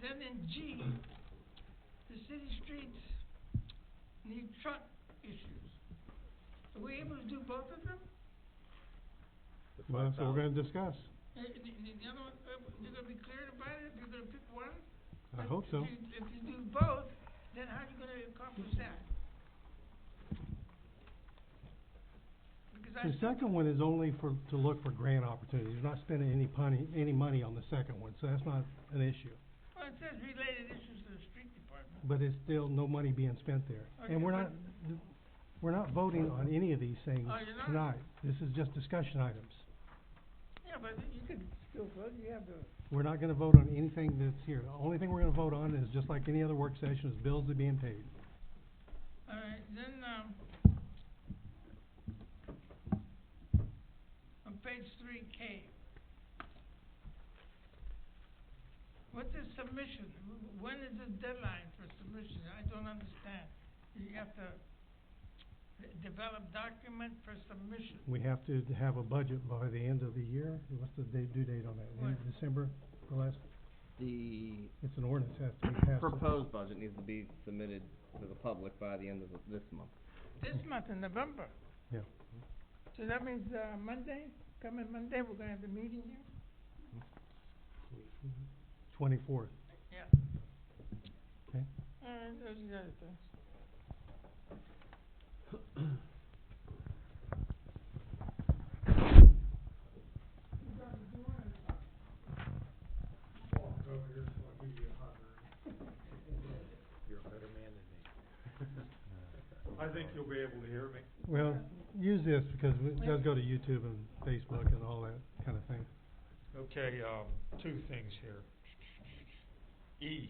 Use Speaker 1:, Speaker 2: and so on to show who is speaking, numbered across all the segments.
Speaker 1: Then in G, the city streets need truck issues. Are we able to do both of them?
Speaker 2: The
Speaker 3: Well, that's what we're
Speaker 2: 5,000.
Speaker 3: gonna discuss.
Speaker 1: Uh, the, the the other one, uh, you're gonna be clear about it, you're gonna pick one?
Speaker 3: I
Speaker 1: But
Speaker 3: hope so.
Speaker 1: If you, if you do both, then how are you gonna accomplish that? Because I
Speaker 3: The
Speaker 1: still-
Speaker 3: second one is only for, to look for grant opportunities. We're not spending any money, any money on the second one, so that's not an issue.
Speaker 1: well, it says related issues to the street department.
Speaker 3: But it's still no money being spent there. And we're
Speaker 1: Okay,
Speaker 3: not, we're not voting on any of these things
Speaker 1: Oh, you're not?
Speaker 3: tonight. This is just discussion items.
Speaker 1: Yeah, but you could still vote, you have the,
Speaker 3: We're not gonna vote on anything that's here. The only thing we're gonna vote on is, just like any other work session, is bills that are being paid.
Speaker 1: all right, then, um, on page three K. What's the submission? Wh- wh- When is the deadline for submission? I don't understand. You have to de- develop document for submission.
Speaker 3: We have to have a budget by the end of the year. What's the day, due date on that? End of December, the last,
Speaker 2: The
Speaker 3: it's an ordinance has to be passed.
Speaker 2: proposed budget needs to be submitted to the public by the end of the- this month.
Speaker 1: This month in November.
Speaker 3: Yeah.
Speaker 1: So that means, uh, Monday, coming Monday, we're gonna have the meeting here?
Speaker 3: Twenty-fourth.
Speaker 1: Yeah.
Speaker 3: Okay.
Speaker 1: All right, those are the other things.
Speaker 4: You're a better man than me. I think you'll be able to hear me.
Speaker 3: Well, use this because it does go to YouTube and Facebook and all that kind of thing.
Speaker 4: Okay, um, two things here. E,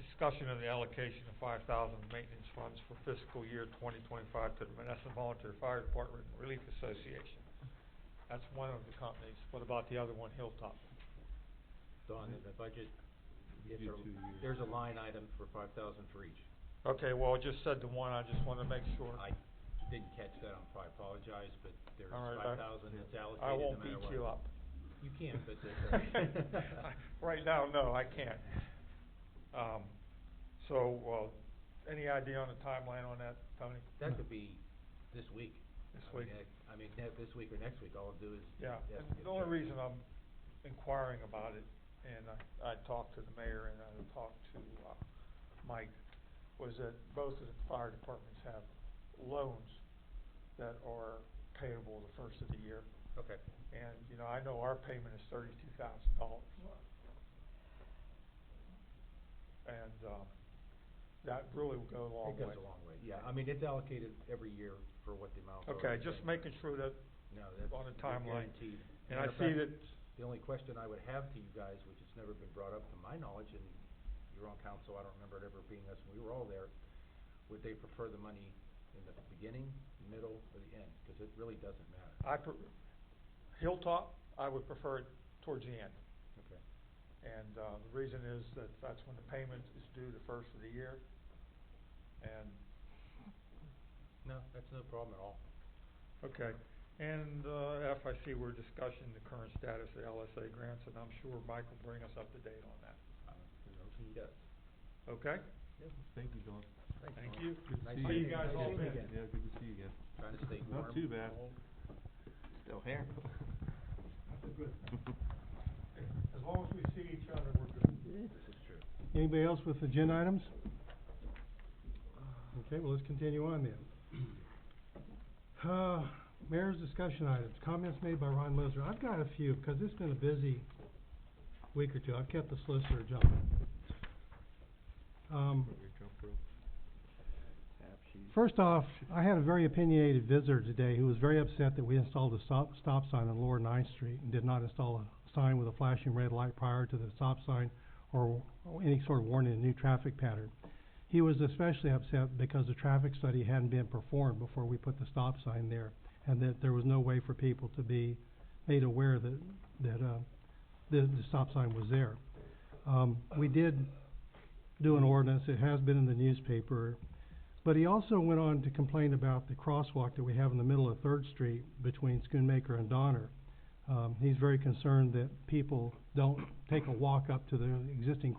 Speaker 4: discussion of the allocation of five thousand maintenance funds for fiscal year twenty twenty-five to the Menneson Volunteer Fire Department Relief Association. That's one of the companies. What about the other one, Hilltop?
Speaker 5: Don, in the budget, is there, there's a line item for five thousand for each.
Speaker 4: Okay, well, I just said the one, I just wanna make sure.
Speaker 5: I didn't catch that, I'm sorry, I apologize, but there's
Speaker 4: All right, I-
Speaker 5: five thousand that's allocated
Speaker 4: I
Speaker 5: no
Speaker 4: won't
Speaker 5: matter what.
Speaker 4: beat you up.
Speaker 5: You can't, but that's.
Speaker 4: Right now, no, I can't. Um, so, well, any idea on the timeline on that, Tony,
Speaker 5: That could be this week.
Speaker 4: this
Speaker 5: I mean,
Speaker 4: week?
Speaker 5: that- I mean, ne- this week or next week, all I'll do is.
Speaker 4: Yeah,
Speaker 5: that's
Speaker 4: and
Speaker 5: good.
Speaker 4: the only reason I'm inquiring about it, and I, I talked to the mayor and I talked to, uh, Mike, was that both of the fire departments have loans that are payable the first of the year.
Speaker 5: Okay,
Speaker 4: And, you know, I know our payment is thirty-two thousand dollars. And, um, that really will go a long
Speaker 5: it
Speaker 4: way.
Speaker 5: goes a long way, yeah, I mean, it's allocated every year for what the amount. of-
Speaker 4: Okay, just making sure that,
Speaker 5: No, that's.
Speaker 4: on a
Speaker 5: that's
Speaker 4: timeline.
Speaker 5: guaranteed.
Speaker 4: and I
Speaker 5: Matter of
Speaker 4: see
Speaker 5: fact,
Speaker 4: that,
Speaker 5: The only question I would have to you guys, which has never been brought up to my knowledge, and you're on council, I don't remember it ever being us, we were all there, would they prefer the money in the beginning, middle, or the end? Because it really doesn't matter.
Speaker 4: I, pre- Hilltop, I would prefer it towards the end.
Speaker 5: Okay.
Speaker 4: And, uh, the reason is that that's when the payment is due the first of the year. And,
Speaker 5: No, that's no problem at all.
Speaker 4: okay, and, uh, F, I see we're discussing the current status of LSA grants, and I'm sure Mike will bring us up to date on that,
Speaker 5: Uh, He does.
Speaker 4: okay?
Speaker 2: Thank you, Don.
Speaker 5: Thanks,
Speaker 4: Thank
Speaker 5: Norm.
Speaker 4: you.
Speaker 2: Good to
Speaker 5: Nice
Speaker 2: see
Speaker 4: How
Speaker 5: seeing
Speaker 4: you
Speaker 2: you.
Speaker 4: guys
Speaker 5: Nice
Speaker 4: all
Speaker 5: seeing you
Speaker 4: been?
Speaker 5: again.
Speaker 2: Yeah, good to see you again.
Speaker 5: Trying to stay warm.
Speaker 2: Not too bad.
Speaker 5: cold.
Speaker 2: Still here.
Speaker 4: As long as we see each other, we're good.
Speaker 5: This is true.
Speaker 3: Anybody else with agenda items? Okay, well, let's continue on then. Uh, mayor's discussion items, comments made by Ron Lizer. I've got a few, because it's been a busy week or two. I've kept the solicitor jumping. Um,
Speaker 2: Tap sheet.
Speaker 3: First off, I had a very opinionated visitor today who was very upset that we installed a stop, stop sign on Lower Ninth Street and did not install a sign with a flashing red light prior to the stop sign or or any sort of warning of new traffic pattern. He was especially upset because the traffic study hadn't been performed before we put the stop sign there and that there was no way for people to be made aware that, that, uh, the, the stop sign was there. Um, we did do an ordinance, it has been in the newspaper, but he also went on to complain about the crosswalk that we have in the middle of Third Street between Schoonmaker and Donner. Um, he's very concerned that people don't take a walk up to the existing